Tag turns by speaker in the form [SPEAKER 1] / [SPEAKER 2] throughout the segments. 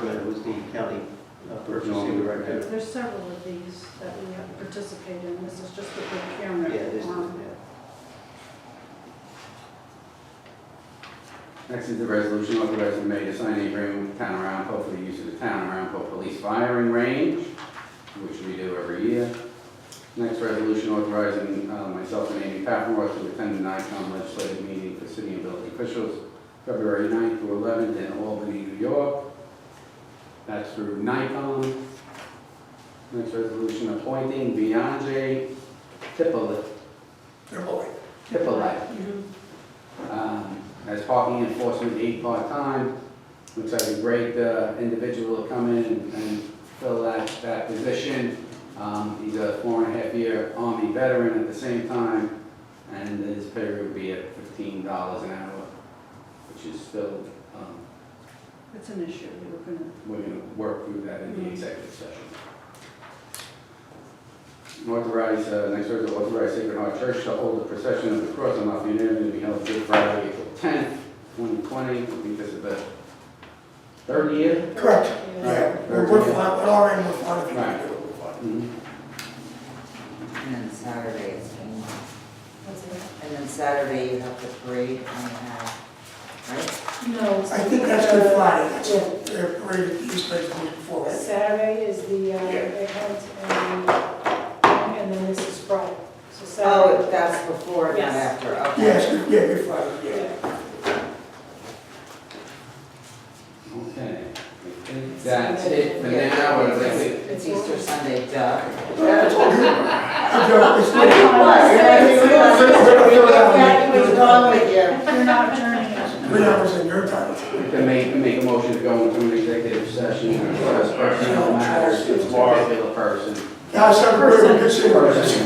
[SPEAKER 1] the county uh, purchasing
[SPEAKER 2] No, right
[SPEAKER 1] director.
[SPEAKER 2] there.
[SPEAKER 3] There's several of these that we have participated in, this is just the
[SPEAKER 1] Yeah,
[SPEAKER 3] procurement.
[SPEAKER 1] this, is-
[SPEAKER 3] one.
[SPEAKER 1] yeah.
[SPEAKER 2] Next is the resolution authorizing the mayor to sign an agreement with the town of Arapahoe for the use of the town of Arapahoe police firing range, which we do every year. Next resolution authorizing uh, myself and Amy Pappmore to attend the NICOM legislative meeting for city and village officials, February 9th through 11th in Albany, New York. That's through NICOM. Next resolution appointing Beyonce Tipple- Tippolite
[SPEAKER 3] Mhm.
[SPEAKER 2] um, as parking enforcement aide part-time. Looks like a great uh, individual to come in and- and fill that, that position. Um, He's a four and a half year Army veteran at the same time, and his pay would be at fifteen dollars an hour, which is still, um,
[SPEAKER 3] It's an issue, we were gonna,
[SPEAKER 2] we're gonna work through that in the executive session. Authorize, uh, next order, authorize Sacred Heart Church to hold a procession of the cross on Lafayette Avenue to be held Good Friday, April tenth, twenty twenty. I think this is the third year.
[SPEAKER 4] Correct.
[SPEAKER 2] Right.
[SPEAKER 4] We're, we're fine, we're all right, we're fine if you
[SPEAKER 2] Right.
[SPEAKER 4] can do it, we're fine.
[SPEAKER 2] Mm-hmm.
[SPEAKER 5] And then Saturday is Kingdom. And then Saturday you have the parade and you have, right?
[SPEAKER 6] No.
[SPEAKER 4] I think that's Good Friday, that's all, they're ready to use those things before, right?
[SPEAKER 6] Saturday is the, uh,
[SPEAKER 4] Yeah.
[SPEAKER 6] they um, and then this is Friday. So
[SPEAKER 5] Oh,
[SPEAKER 6] Saturday.
[SPEAKER 5] that's before, not
[SPEAKER 6] Yes.
[SPEAKER 5] after, okay.
[SPEAKER 4] Yes, Good- yeah, Good Friday, yeah.
[SPEAKER 6] Yeah.
[SPEAKER 2] Okay. I think That's it for now. We're like-
[SPEAKER 5] It's Easter Sunday, duh.
[SPEAKER 4] Yeah, it's all good. I'm joking, it's
[SPEAKER 5] I
[SPEAKER 4] not-
[SPEAKER 5] didn't realize
[SPEAKER 4] We're not-
[SPEAKER 5] Exactly what's wrong with you.
[SPEAKER 3] you're not adjourning it.
[SPEAKER 4] We're not in your time.
[SPEAKER 2] We can make, make a motion to go into an executive session and discuss personnel matters with a particular person.
[SPEAKER 4] Now, it's not very good, it's
[SPEAKER 2] Person,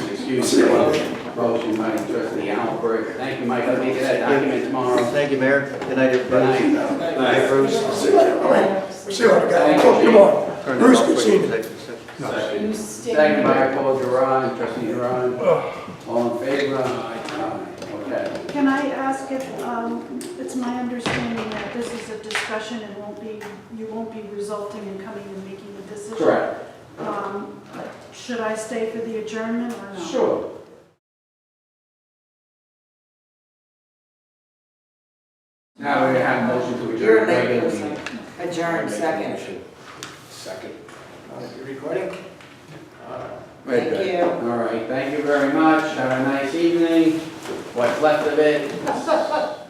[SPEAKER 4] We'll
[SPEAKER 2] excuse
[SPEAKER 4] see
[SPEAKER 2] me.
[SPEAKER 4] you later.
[SPEAKER 2] Motion by trustee Albert. Thank you, Mike. I'll be that document tomorrow.
[SPEAKER 1] Thank you, Mayor. Good night, everybody.
[SPEAKER 2] Good
[SPEAKER 1] Good night, Bruce.
[SPEAKER 4] See you later, all right. See you later, guys.
[SPEAKER 2] Thank you.
[SPEAKER 4] Come on.
[SPEAKER 1] Turn it
[SPEAKER 4] Bruce,
[SPEAKER 1] off
[SPEAKER 4] good
[SPEAKER 1] for
[SPEAKER 4] seeing you.
[SPEAKER 1] executive session.
[SPEAKER 6] You stay.
[SPEAKER 2] Second by Paul Duran, trustee Duran.
[SPEAKER 5] Oh.
[SPEAKER 2] All in favor? Aye. Okay.
[SPEAKER 3] Can I ask if, um, it's my understanding that this is a discussion and won't be, you won't be resulting in coming and making a decision?
[SPEAKER 2] Correct.
[SPEAKER 3] Um, Should I stay for the adjournment or
[SPEAKER 5] Oh.
[SPEAKER 3] no?
[SPEAKER 2] Sure. Now we have a motion to
[SPEAKER 5] You're
[SPEAKER 2] adjourn the
[SPEAKER 5] late,
[SPEAKER 2] regular
[SPEAKER 5] Bruce.
[SPEAKER 2] meeting.
[SPEAKER 5] Adjourn, second.
[SPEAKER 1] Second. You recording? All right.
[SPEAKER 2] Very good.
[SPEAKER 5] Thank you.
[SPEAKER 2] All right, thank you very much. Have a nice evening. What's left of it?